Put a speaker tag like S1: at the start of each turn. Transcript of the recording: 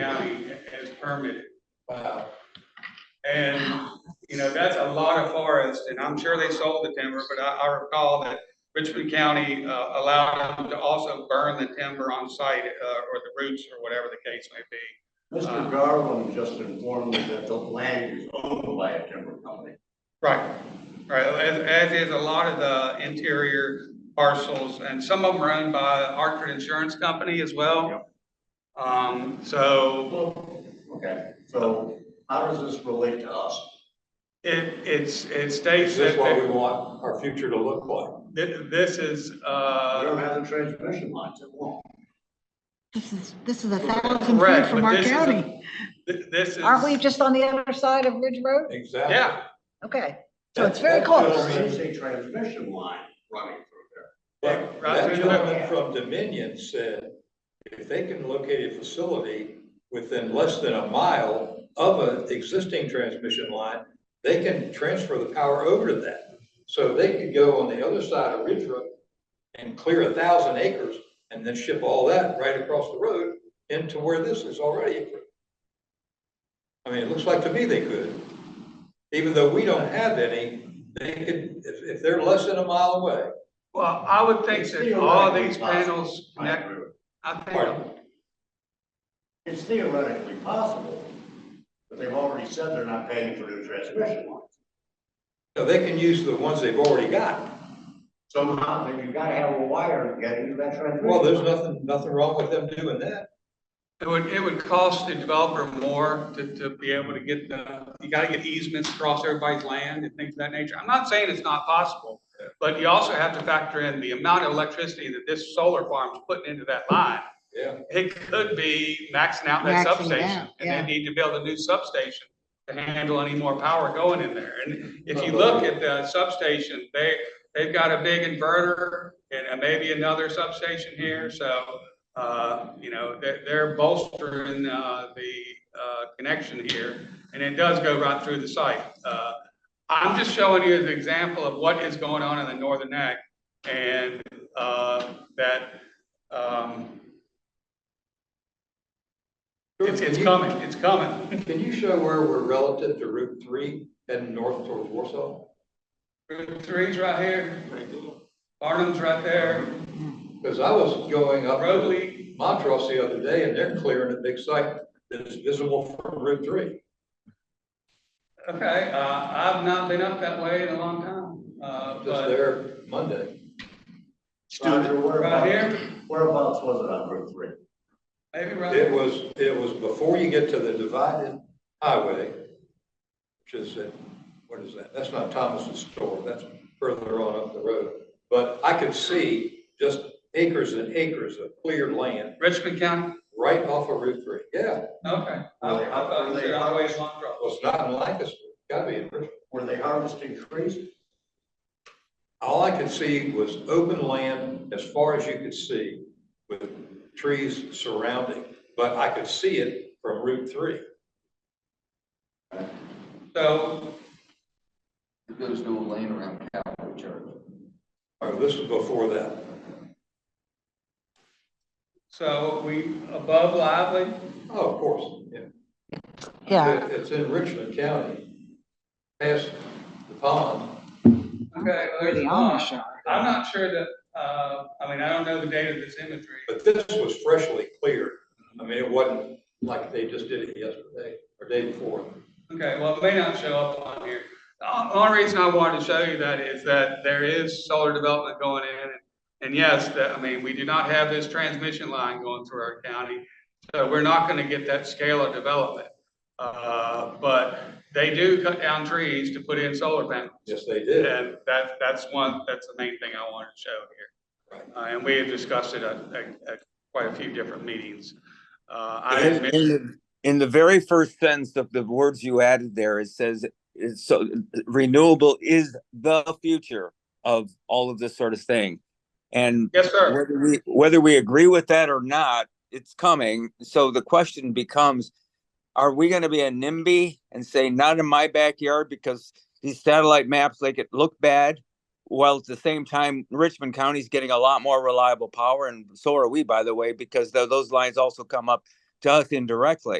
S1: county as permitted.
S2: Wow.
S1: And, you know, that's a lot of forest, and I'm sure they sold the timber, but I, I recall that Richmond County, uh, allowed them to also burn the timber on site, uh, or the roots, or whatever the case may be.
S3: Mr. Garland just informed me that the land is owned by a timber company.
S1: Right, right, as, as is a lot of the interior parcels, and some of them are owned by Hartford Insurance Company as well. Um, so,
S3: Okay, so how does this relate to us?
S1: It, it's, it states
S2: Is this
S1: that,
S2: what we want our future to look like?
S1: that this is,
S3: We
S1: uh,
S3: don't have the transmission lines at all.
S4: This is, this is a
S1: Correct,
S4: thousand feet from
S1: but
S4: our
S1: this is a-
S4: county.
S1: th- this is.
S4: Aren't we just on the other side of Ridge Road?
S2: Exactly.
S1: Yeah,
S4: Okay, so
S2: That-
S4: it's very
S2: that
S1: Oh,
S4: close.
S3: There
S2: gentleman-
S3: is a transmission line running through
S2: That
S1: Right,
S2: that
S1: right.
S2: gentleman from Dominion said, if they can locate a facility within less than a mile of an existing transmission line, they can transfer the power over to that. So they could go on the other side of Ridge Road and clear a thousand acres and then ship all that right across the road into where this is already approved. I mean, it looks like to me they could. Even though we don't have any, they could, if, if they're less than a mile away,
S1: well, I would think that all these panels
S3: there. I
S1: connect,
S3: agree.
S1: I
S2: pardon,
S1: think,
S3: It's theoretically possible, but they've already said they're not paying for new transmission lines.
S2: No, they can use the ones they've already got.
S3: Somehow, then you've got to have a wire to get into that transmission.
S2: Well, there's
S3: line.
S2: nothing, nothing wrong with them doing that.
S1: it would, it would cost the developer more to, to be able to get the, you gotta get easements across everybody's land and things of that nature. I'm not saying it's not possible, but you also have to factor in the amount of electricity that this solar farm's putting into that line.
S2: Yeah.
S1: It could be maxing out that
S4: Maxing out,
S1: substation,
S4: yeah.
S1: and they need to build a new substation to handle any more power going in there. And if you
S2: Uh-oh.
S1: look at the substation, they, they've got a big inverter and uh, maybe another substation here, so, uh, you know, they're, they're bolstering, uh, the, uh, connection here, and it does go right through the site. Uh, I'm just showing you an example of what is going on in the northern neck, and, uh, that, um, it's, it's coming, it's coming.
S2: Can you show where we're relative to Route three heading north towards Warsaw?
S1: Route three's right here, Barnum's right there,
S2: Because I was going up to
S1: Roadley,
S2: Montrose the other day and they're clearing a big site that is visible from Route three.
S1: okay, uh, I've not been up that way in a long time, uh,
S2: Just
S1: but
S2: there Monday.
S3: Roger,
S1: right
S3: whereabouts,
S1: here,
S3: whereabouts was it on Route Three?
S1: maybe
S2: It
S1: right,
S2: was, it was before you get to the divided highway, which is, at- what is that? That's not Thomas's store, that's further on up the road. But I could see just acres and acres of cleared land
S1: Richmond County,
S2: right off of Route three. Yeah,
S1: okay. I
S3: Were they har-
S1: thought you
S3: were they
S1: said all the way to Long
S2: it
S1: Grove.
S2: was not in Lancaster, gotta be in Richmond.
S3: Were they harvesting trees?
S2: All I could see was open land as far as you could see with trees surrounding, but I could see it from Route three.
S1: So,
S5: There's no lane around Calvary Church.
S2: Or Oh, this was before that.
S1: so we above Lively,
S2: Oh, of course, yeah.
S4: Yeah,
S2: It- It's in Richmond County, past the pond.
S1: okay, well,
S4: where the
S1: there's
S4: Amish
S1: one.
S4: are.
S1: I'm not sure that, uh, I mean, I don't know the date of this imagery.
S2: But this was freshly cleared. I mean, it wasn't like they just did it yesterday or day before.
S1: Okay, well, it may not show up on here. The on- only reason I wanted to show you that is that there is solar development going in. and- And yes, that, I mean, we do not have this transmission line going through our county. So we're not gonna get that scale of development. Uh, but they do cut down trees to put in solar panels.
S2: Yes, they did.
S1: And that, that's one, that's the main thing I wanted to show here. Uh, and we have discussed it at, at, at quite a few different meetings. Uh, I
S6: In,
S1: admit-
S6: in the, in the very first sentence of the words you added there, it says, it's so renewable is the future of all of this sort of thing. And
S1: yes, sir.
S6: whether we, whether we agree with that or not, it's coming. So the question becomes, are we gonna be a NIMBY and say, not in my backyard because these satellite maps make it look bad? While at the same time, Richmond County's getting a lot more reliable power and so are we, by the way, because tho- those lines also come up to us indirectly.